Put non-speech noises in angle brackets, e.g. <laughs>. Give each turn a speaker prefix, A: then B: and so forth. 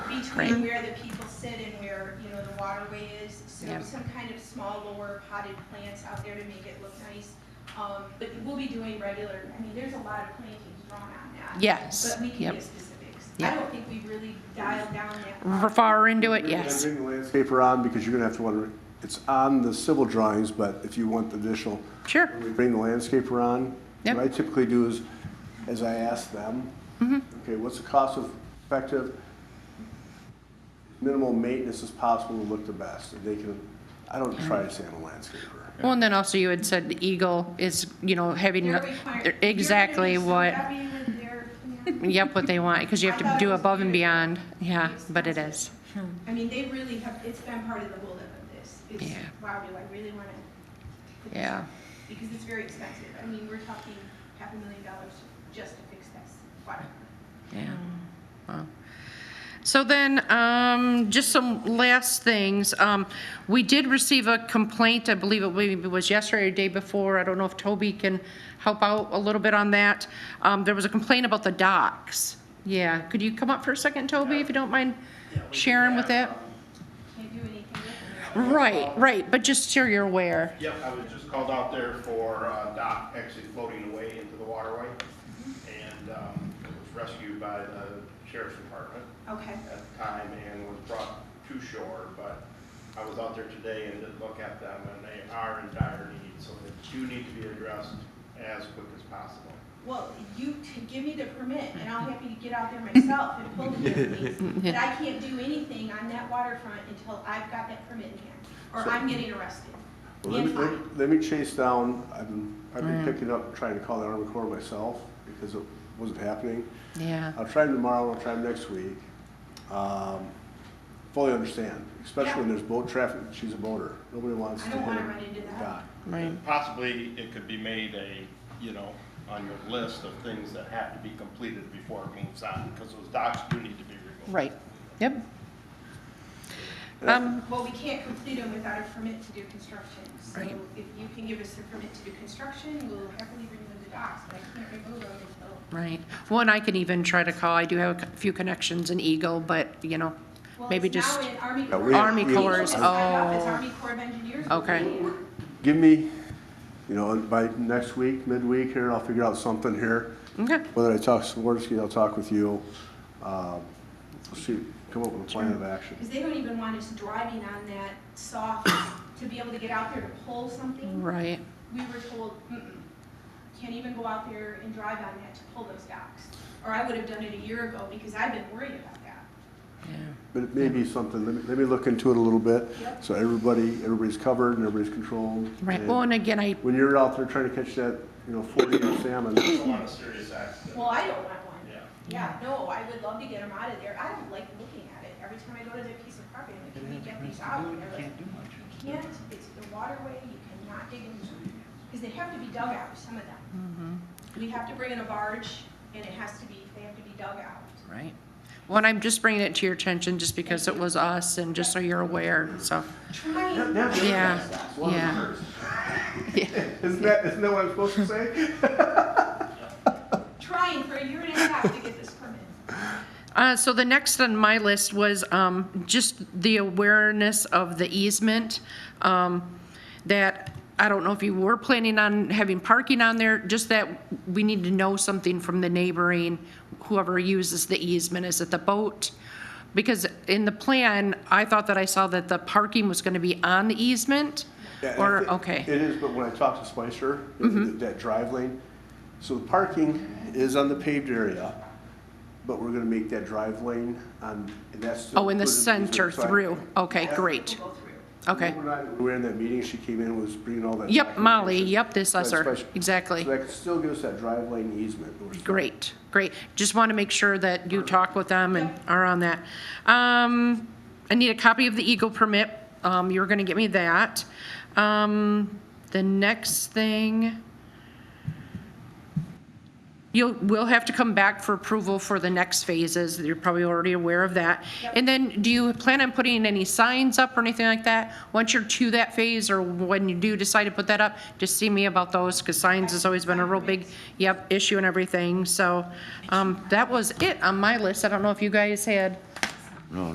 A: Right.
B: between where the people sit and where, you know, the waterway is. So
A: Yep.
B: some kind of small lower potted plants out there to make it look nice. Um, but we'll be doing regular, I mean, there's a lot of plantings drawn on that.
A: Yes,
B: But we can
A: yep.
B: give specifics. I
A: Yep.
B: don't think we really dialed down that.
A: We're
B: part.
A: Far into it, yes.
C: Bring the landscaper on, because you're gonna have to wonder, it's on the civil drawings, but if you want the additional,
A: Sure.
C: when we bring the landscaper on,
A: Yep.
C: what I typically do is, as I ask them,
A: Mm-hmm.
C: okay, what's the cost of effective, minimal maintenance as possible to look the best, and they can, I don't try to say I'm a landscaper.
A: Well, and then also you had said the eagle is, you know, having
B: They're required- they're gonna
A: exactly
B: be so
A: what,
B: happy with their plan.
A: yep, what they want, because you have to do above and beyond. Yeah, Ah, but it is.
C: Hmm.
B: I mean, they really have, it's been part of the holdup of this. It's,
A: Yeah.
B: wow, do I really want to?
A: Yeah.
B: Because it's very expensive. I mean, we're talking half a million dollars just to fix this water.
A: Yeah. Wow. So then, um, just some last things. Um, we did receive a complaint, I believe it maybe was yesterday or the day before. I don't know if Toby can help out a little bit on that. Um, there was a complaint about the docks. Yeah, could you come up for a second, Toby, if you don't mind sharing with that?
B: Can't do anything with it.
A: Right, right, but just so you're aware.
D: Yep, I was just called out there for uh, dock actually floating away into the waterway. And um, it was rescued by the sheriff's department
B: Okay,
D: at the time and was brought to shore. But I was out there today and did look at them and they are in dire need, so they do need to be addressed as quick as possible.
B: well, you t- give me the permit and I'll happy to get out there myself and pull
C: <laughs>
B: the things. But I can't do anything on that waterfront until I've got that permit in hand, or I'm getting arrested.
C: Well, Let me,
B: And
C: let me-
B: fined.
C: let me chase down, I've been, I've
A: Mm.
C: been picking up, trying to call the Army Corps myself, because it wasn't happening.
A: Yeah,
C: I'll try them tomorrow, I'll try them next week. Um, Fully understand, especially when there's boat traffic, she's a boater, nobody wants
B: I
C: to
B: don't
C: hit
B: wanna
C: a
B: run into that.
C: dock.
A: right.
D: Possibly, it could be made a, you know, on your list of things that have to be completed before it moves on, because those docks do need to be removed.
A: Right, yep. Um,
B: Well, we can't complete them without a permit to do construction. So
A: Right.
B: if you can give us a permit to do construction, we'll happily remove the docks, but I can't remove them until.
A: Right. One, I can even try to call, I do have a few connections in Eagle, but, you know,
B: Well,
A: maybe
B: it's now
A: just,
B: in Army
C: Yeah,
B: Corps.
C: we- Army
B: It's
C: Corps,
B: just signed off, It's
A: oh.
B: Army Corps of Engineers.
A: Okay.
C: Give me, you know, by next week, midweek here, I'll figure out something here.
A: okay,
C: Whether I talk to Swiderski, I'll talk with you. Um, We'll see, come up with a plan of action.
B: Because they don't even want us driving on that soft <coughs> to be able to get out there to pull something.
A: right,
B: We were told, mm-mm, can't even go out there and drive on that to pull those docks. Or I would have done it a year ago because I've been worried about that.
A: yeah,
C: But it may be something, let me, let me look into it a little bit.
B: Yep.
C: So everybody, everybody's covered and everybody's controlled.
A: right.
C: And
A: Well, and again, I,
C: When you're out there trying to catch that, you know, forty inch salmon,
D: I don't want a serious accident.
B: Well, I don't want one.
D: Yeah.
B: Yeah, no, I would love to get them out of there. I don't like looking at it. Every time I go to that piece of property, I'm like, can we get these out? And they're like, you can't, it's the waterway, you cannot dig into them. Because they have to be dug out, some of them. We have to bring in a barge and it has to be, they have to be dug out.
A: right. Well, and I'm just bringing it to your attention just because it was us and just so you're aware, so,
B: Trying.
A: yeah, yeah. <laughs>
C: <laughs> Isn't that, isn't that what I'm supposed to say?
B: Trying for a year and a half to get this permit.
A: Uh, so the next on my list was, um, just the awareness of the easement, um, that, I don't know if you were planning on having parking on there, just that we need to know something from the neighboring, whoever uses the easement, is it the boat? Because in the plan, I thought that I saw that the parking was gonna be on the easement,
C: Yeah, I
A: or,
C: think
A: okay, Mm-hmm.
C: It is, but when I talked to Spicer, that that drive lane, so the parking is on the paved area, but we're gonna make that drive lane on, and that's. to
A: oh, in the
C: include easement.
A: center
C: So I-
A: through, okay, great,
B: We'll go through.
A: okay.
C: When I- We were in that meeting, she came in, and was bringing all that.
A: Yep, Molly,
C: documentation.
A: yep, this
C: So I
A: usher,
C: spec-
A: exactly.
C: So that could still give us that drive lane easement. or something.
A: Great, great. Just want to make sure that you talk with them and are on that. Um, I need a copy of the Eagle permit. Um, you were going to get me that. Um, the next thing, you'll, we'll have to come back for approval for the next phases. You're probably already aware of that. And then do you plan on putting any signs up or anything like that? Once you're to that phase or when you do decide to put that up, just see me about those because signs has always been a real big, yep, issue and everything. So, um, that was it on my list. I don't know if you guys had